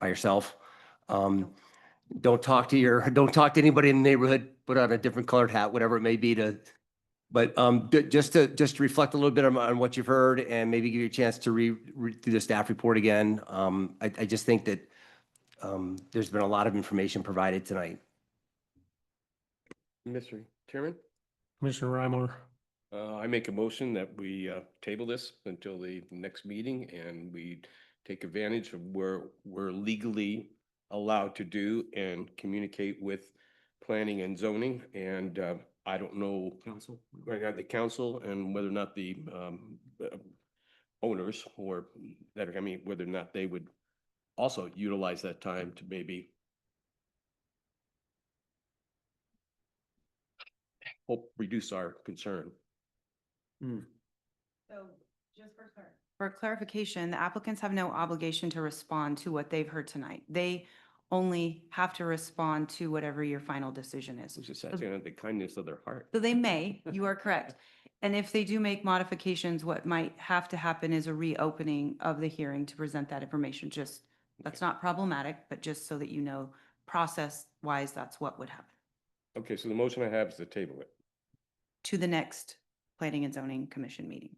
by yourself. Um, don't talk to your, don't talk to anybody in the neighborhood, put on a different colored hat, whatever it may be to, but, um, ju- just to, just to reflect a little bit on, on what you've heard and maybe give you a chance to re, read through the staff report again. Um, I, I just think that, um, there's been a lot of information provided tonight. Mr. Chairman, Commissioner Reimar, uh, I make a motion that we, uh, table this until the next meeting and we take advantage of where we're legally allowed to do and communicate with planning and zoning. And, uh, I don't know Council. right now the council and whether or not the, um, uh, owners or that, I mean, whether or not they would also utilize that time to maybe help reduce our concern. So just for clar- For clarification, the applicants have no obligation to respond to what they've heard tonight. They only have to respond to whatever your final decision is. It's just that, you know, the kindness of their heart. So they may, you are correct. And if they do make modifications, what might have to happen is a reopening of the hearing to present that information. Just, that's not problematic, but just so that you know, process-wise, that's what would happen Okay, so the motion I have is to table it. to the next Planning and Zoning Commission meeting.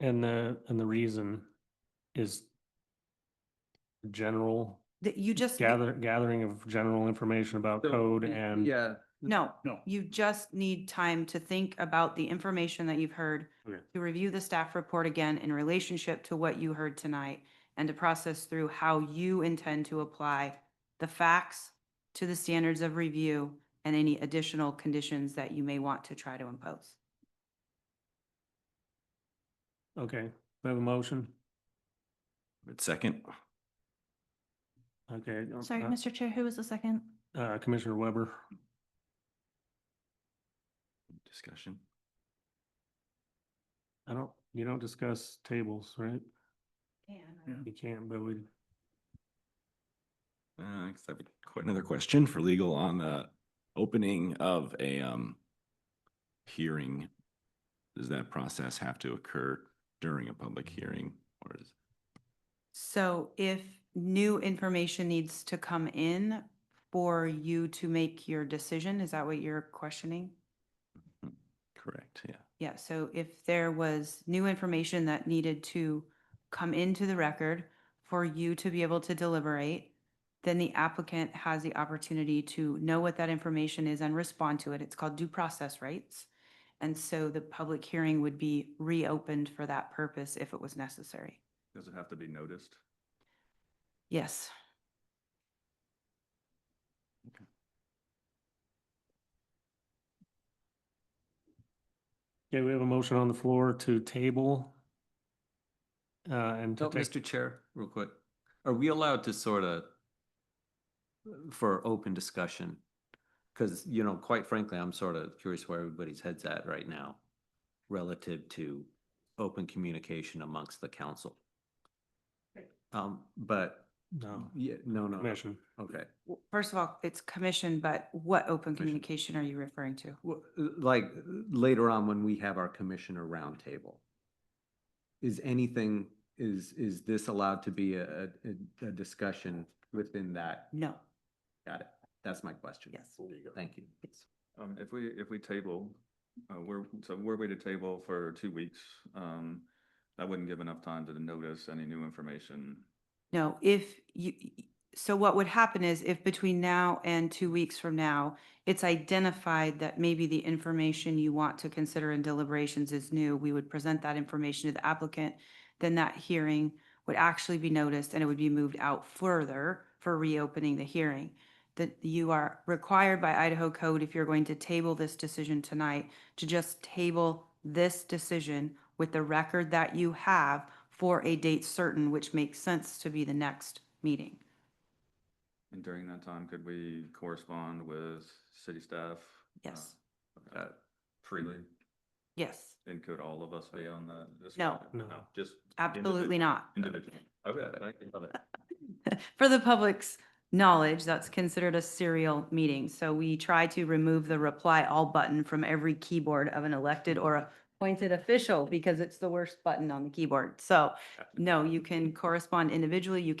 And the, and the reason is general That you just. gather, gathering of general information about code and. Yeah. No. No. You just need time to think about the information that you've heard. Okay. To review the staff report again in relationship to what you heard tonight and to process through how you intend to apply the facts to the standards of review and any additional conditions that you may want to try to impose. Okay, we have a motion. Second. Okay. uh, Sorry, Mr. Chair, who was the second? Uh, Commissioner Weber, Discussion. I don't, you don't discuss tables, right? You can't, but we, Uh, I guess I have quite another question for legal on the opening of a um hearing. Does that process have to occur during a public Mm-hmm. hearing or is? So if new information needs to come in for you to make your decision, is that what you're questioning? Correct, yeah. Yeah, so if there was new information that needed to come into the record for you to be able to deliberate, then the applicant has the opportunity to know what that information is and respond to it. It's called due process rights. And so the public hearing would be reopened for that purpose if it was necessary. Does it have to be noticed? Yes. okay, we have a motion on the floor to table. Uh, and to Oh, take, Mr. Chair, real quick, are we allowed to sort of for open discussion? Because, you know, quite frankly, I'm sort of curious where everybody's head's at right now relative to open communication amongst the council. Um, but, no, yeah, no, no, no, Oh. commission. okay. W- First of all, it's commission, but what open Commission. communication are you referring to? Well, uh, Like, uh, later on when we have our commissioner roundtable. Is anything, is, is this allowed to be a, a, a discussion within that? No, Got it. That's my question. Yes. Thank you. Um, if we, if we table, uh, we're, so we're way to table for two weeks. Um, that wouldn't give enough time to notice any new information. No, if you, so what would happen is if between now and two weeks from now, it's identified that maybe the information you want to consider in deliberations is new, we would present that information to the applicant. Then that hearing would actually be noticed and it would be moved out further for reopening the hearing. That you are required by Idaho code, if you're going to table this decision tonight, to just table this decision with the record that you have for a date certain, which makes sense to be the next meeting. And during that time, could we correspond with city staff? uh, Yes, Mm-hmm. uh, Freely, yes, and could all of us be on the? this No. call? No. Just. absolutely not. Individual. Okay, thank you. Love it. For the public's knowledge, that's considered a serial meeting. So we try to remove the reply all button from every keyboard of an elected or appointed official because it's the worst button on the keyboard. So no, you can correspond individually, you